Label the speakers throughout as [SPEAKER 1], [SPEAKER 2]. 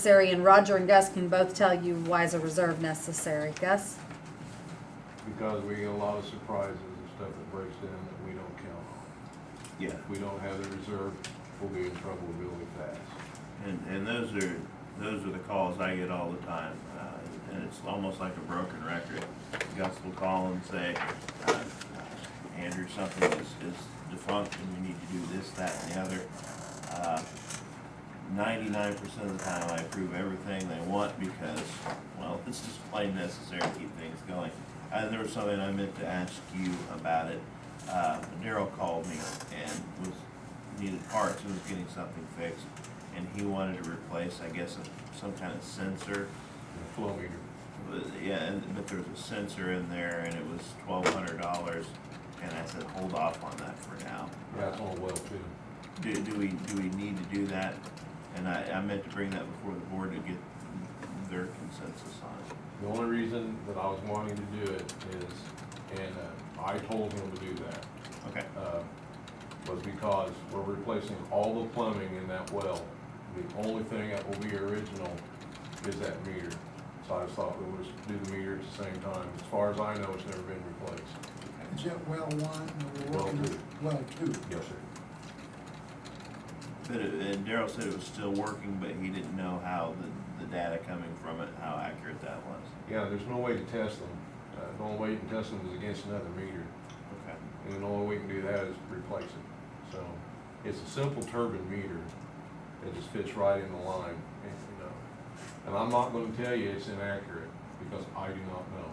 [SPEAKER 1] necessary, and Roger and Gus can both tell you why is a reserve necessary. Gus?
[SPEAKER 2] Because we get a lot of surprises and stuff that breaks in that we don't count on.
[SPEAKER 3] Yeah,
[SPEAKER 2] If we don't have the reserve, we'll be in trouble really fast.
[SPEAKER 3] and, and those are, those are the calls I get all the time, uh, and it's almost like a broken record. Gus will call and say, uh, Andrew, something is, is defunct and we need to do this, that, and the other. Uh, Ninety-nine percent of the time I approve everything they want because, well, it's just plain necessary to keep things going. And there was something I meant to ask you about it. Uh, Daryl called me and was, needed parts, and was getting something fixed. And he wanted to replace, I guess, a- some kind of sensor.
[SPEAKER 2] The flow meter,
[SPEAKER 3] But, Yeah, and, but there was a sensor in there and it was twelve hundred dollars. And I said, hold off on that for now.
[SPEAKER 2] that's on well too.
[SPEAKER 3] Do, do we, do we need to do that? And I, I meant to bring that before the board to get their consensus on it.
[SPEAKER 2] The only reason that I was wanting to do it is, and uh, I told him to do that,
[SPEAKER 3] Okay,
[SPEAKER 2] uh, was because we're replacing all the plumbing in that well. The only thing that will be original is that meter. So I just thought we would just do the meter at the same time. As far as I know, it's never been replaced.
[SPEAKER 4] Is that well one, or we're
[SPEAKER 2] Well
[SPEAKER 4] working
[SPEAKER 2] two.
[SPEAKER 4] with well two?
[SPEAKER 2] Yes, sir.
[SPEAKER 3] but, it- and Daryl said it was still working, but he didn't know how the, the data coming from it, how accurate that was.
[SPEAKER 2] Yeah, there's no way to test them. Uh, The only way you can test them is against another meter,
[SPEAKER 3] Okay,
[SPEAKER 2] and the only way we can do that is replace it. So it's a simple turbine meter that just fits right in the line, and, you know. And I'm not gonna tell you it's inaccurate, because I do not know.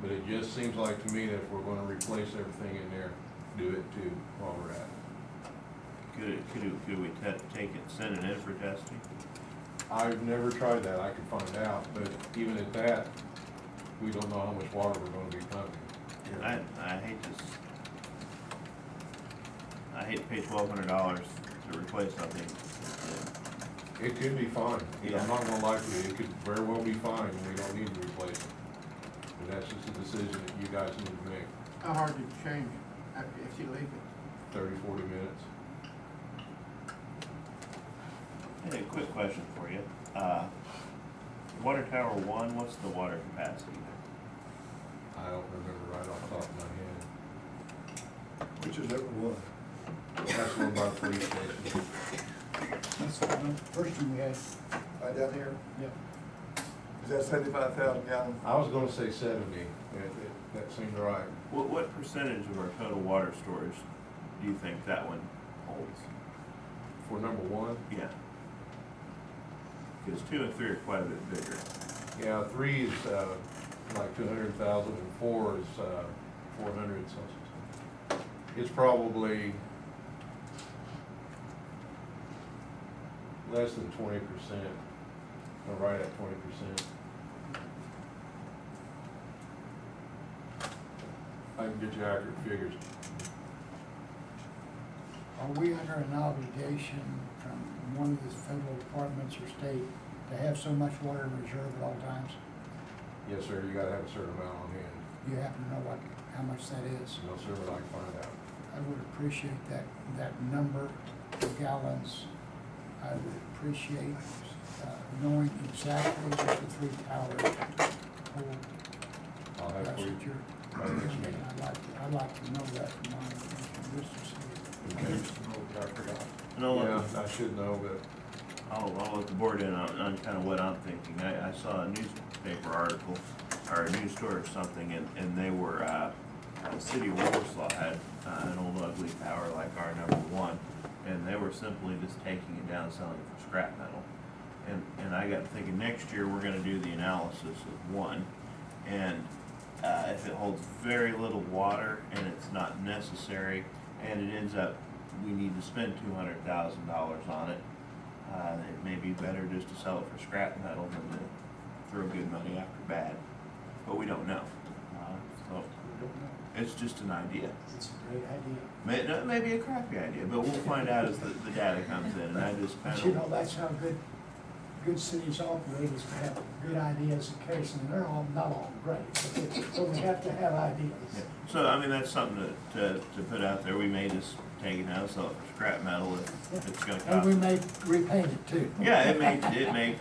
[SPEAKER 2] But it just seems like to me that if we're gonna replace everything in there, do it too while we're at it.
[SPEAKER 3] could, it- could, it- could we te- take it, send it in for testing?
[SPEAKER 2] I've never tried that, I could find out, but even at that, we don't know how much water we're gonna be pumping.
[SPEAKER 3] And I, I hate this. I hate to pay twelve hundred dollars to replace something.
[SPEAKER 2] It could be fine, You know, I'm
[SPEAKER 3] Yeah.
[SPEAKER 2] not gonna lie to you, it could very well be fine, and we don't need to replace it. And that's just a decision that you guys need to make,
[SPEAKER 4] How hard to change it after, if you leave it?
[SPEAKER 2] thirty, forty minutes.
[SPEAKER 3] Hey, a quick question for you. Uh, water tower one, what's the water capacity there?
[SPEAKER 2] I don't remember right off the top of my head.
[SPEAKER 4] Which is at what?
[SPEAKER 2] That's one by the police station.
[SPEAKER 4] That's the one- first one we had.
[SPEAKER 5] Right down here,
[SPEAKER 4] Yep.
[SPEAKER 5] is that seventy-five thousand gallon?
[SPEAKER 2] I was gonna say seventy, That- that, that seemed right.
[SPEAKER 3] What, what percentage of our total water storage do you think that one holds?
[SPEAKER 2] For number one,
[SPEAKER 3] Yeah. Cause two and three are quite a bit bigger.
[SPEAKER 2] yeah, three is, uh, like two hundred thousand, and four is, uh, four hundred, so. It's probably less than twenty percent, or right at twenty percent. I can get you accurate figures.
[SPEAKER 4] Are we under an obligation from one of the federal departments or state to have so much water in reserve at all times?
[SPEAKER 2] Yes, sir, you gotta have a certain amount on hand.
[SPEAKER 4] Do you happen to know what, how much that is?
[SPEAKER 2] No, sir, but I can find out.
[SPEAKER 4] I would appreciate that, that number of gallons. I would appreciate uh, knowing exactly what the three towers hold.
[SPEAKER 2] I'll have it
[SPEAKER 4] That's
[SPEAKER 2] for you.
[SPEAKER 4] what you're,
[SPEAKER 2] Right next to me.
[SPEAKER 4] I'd like, I'd like to know that from my, just to see.
[SPEAKER 2] Okay.
[SPEAKER 5] Oh, I forgot.
[SPEAKER 3] And I'll let
[SPEAKER 2] Yeah,
[SPEAKER 3] the-
[SPEAKER 2] I should know, but
[SPEAKER 3] I'll, I'll let Oh, the board in on, on kind of what I'm thinking. I, I saw a newspaper article, or a news story or something, and, and they were, uh, the city of Warsaw had, uh, an old ugly tower like our number one, and they were simply just taking it down, selling it for scrap metal. And, and I got thinking, next year, we're gonna do the analysis of one, and, uh, if it holds very little water and it's not necessary, and it ends up, we need to spend two hundred thousand dollars on it, uh, it may be better just to sell it for scrap metal than to throw good money after bad, but we don't know. Uh, So it's just an idea.
[SPEAKER 4] It's a great idea.
[SPEAKER 3] May, no, it may be a crappy idea, but we'll find out as the, the data comes in, and I just
[SPEAKER 4] But you
[SPEAKER 3] kind
[SPEAKER 4] know,
[SPEAKER 3] of.
[SPEAKER 4] that's how good, good cities operate, is to have good ideas in case, and they're all, not all great, but- but we have to have ideas.
[SPEAKER 3] So, I mean, that's something to, to, to put out there. We may just take it out, sell it for scrap metal if if it's gonna
[SPEAKER 4] And we
[SPEAKER 3] cost.
[SPEAKER 4] may repaint it too.
[SPEAKER 3] Yeah, it may, it may